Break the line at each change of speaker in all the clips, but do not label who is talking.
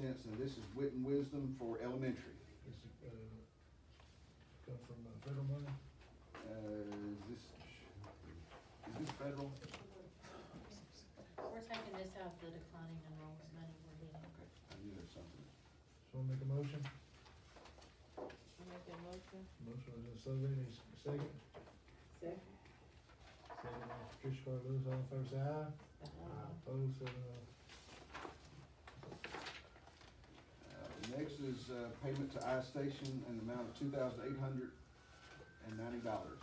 cents, and this is wit and wisdom for elementary.
Is it, uh, come from uh, federal money?
Uh, is this, is this federal?
We're taking this out of the declining enrollment money we're getting.
Okay, I knew there was something.
So make a motion,
I make a motion.
motion by Ms. Sullivan, any s- second,
Second.
second by Patricia Carter Lewis, all in favor say aye.
Uh,
Opposed, seven oh.
Uh, Next is uh, payment to I-Station in the amount of two thousand eight hundred and ninety dollars.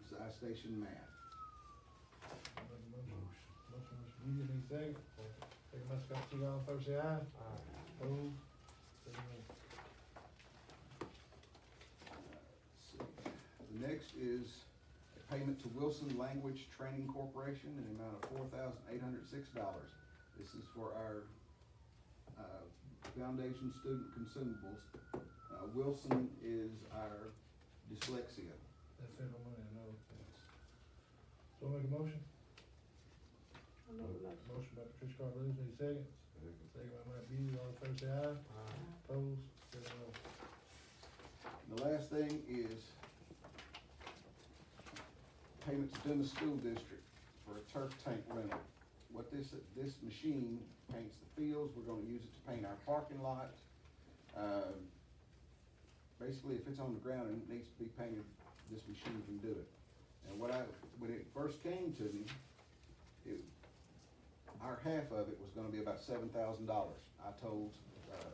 This is I-Station math.
Make a motion, motion by Mr. Meakin, any second, second by Scott Teague, all in favor say aye. Opposed, seven oh.
Let's see. The next is a payment to Wilson Language Training Corporation in the amount of four thousand eight hundred six dollars. This is for our, uh, foundation student consumables. Uh, Wilson is our dyslexia.
That federal money, I know. So make a motion,
I make a
motion
motion.
by Patricia Carter Lewis, any second,
uh,
second by Mike Beasley, all in favor say aye. Opposed, seven oh.
And The last thing is payment to Dennis School District for a turf tank rental. What this, this machine paints the fields, we're gonna use it to paint our parking lot. Um, Basically, if it's on the ground and it needs to be painted, this machine can do it. And what I, when it first came to me, it, our half of it was gonna be about seven thousand dollars. I told, uh,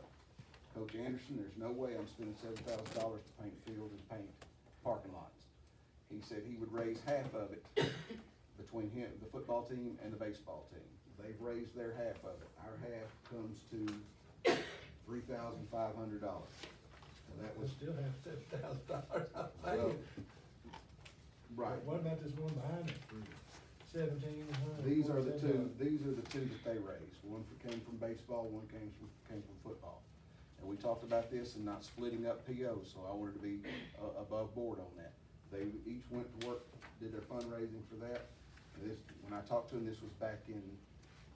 Coach Anderson, there's no way I'm spending seven thousand dollars to paint fields and paint parking lots. He said he would raise half of it between him, the football team and the baseball team. They've raised their half of it. Our half comes to three thousand five hundred dollars. And that
We
was,
still have seven thousand dollars, I'm
Well,
saying.
uh, right. Mm-hmm.
What about this one behind it? Seventeen hundred.
These are the two, these are the two that they raised. One for- came from baseball, one came from, came from football. And we talked about this and not splitting up POs, so I wanted to be uh, above board on that. They each went to work, did their fundraising for that. And This, when I talked to them, this was back in,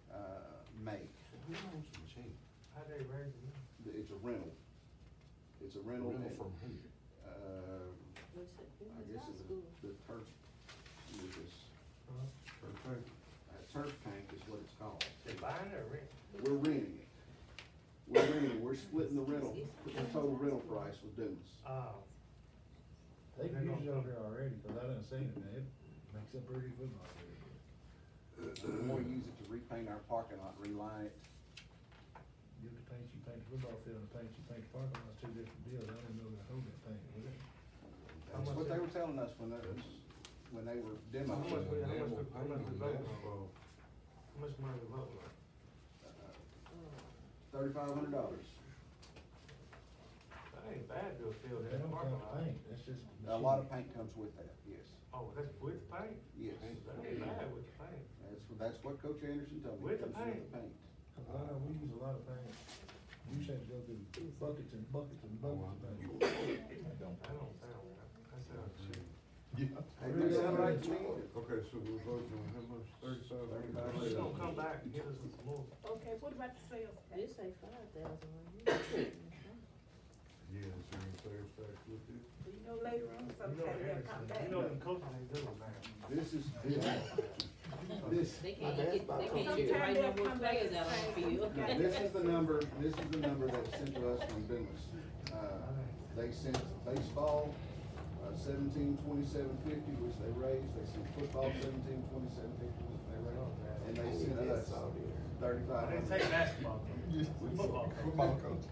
uh, May.
Who owns the machine?
I do raise it.
It's a rental. It's a rental.
Rental
and,
from who?
Uh,
Who said, who
I
was
guess it
our
was
school?
the turf, it was,
Huh?
From who?
uh, turf tank is what it's called.
They buying it or renting?
We're renting it. We're renting, it. we're splitting the rental, the total rental price with Dunes.
Oh,
They can use it over there already, cause I done seen it, man, it makes a pretty football field.
We wanna use it to repaint our parking lot, reline it.
You have to paint, you paint the football field, and paint, you paint the parking lot, two different deals, I didn't know they hold that thing, was it?
That's what they were telling us when they, when they were
How much, we-
demoing.
how
it.
much, we- how much we voting on? How much money we voting on?
Uh, Thirty-five hundred dollars.
That ain't bad to field
They
that
don't
parking
count
lot.
paint, that's just.
A lot of
machine.
paint comes with that, yes,
Oh, that's with paint?
yes.
That ain't bad with the paint.
That's, what- that's what Coach Anderson told me.
With the
It comes
paint.
Cause I know we use a lot of paint, we used to have to go through buckets and buckets and
Oh,
buckets of
I
paint.
know.
That don't sound right. That sounds cheap.
Hey, does that sound right to me?
Okay, so we're voting on how much, thirty-five?
Thirty-five.
She's gonna come back and give us some more.
Okay, what about the sales tax?
This say five thousand right here.
Yeah, is there any sales tax with it?
You know, later
You
on,
know,
sometime they'll come
Anderson,
back.
you know, them coaches ain't doing that.
This is, this, this,
They can't get, they can't get
Sometime
right no
they'll
more
come back
players
and
out on the
say-
field.
Now, this is the number, this is the number that was sent to us from Bendlis. Uh, they sent baseball, uh, seventeen twenty-seven fifty, which they raised, they sent football seventeen twenty-seven fifty, which they raised, and they sent us
That's all there.
thirty-five
They take
hundred.
basketball. Football.
Football coach.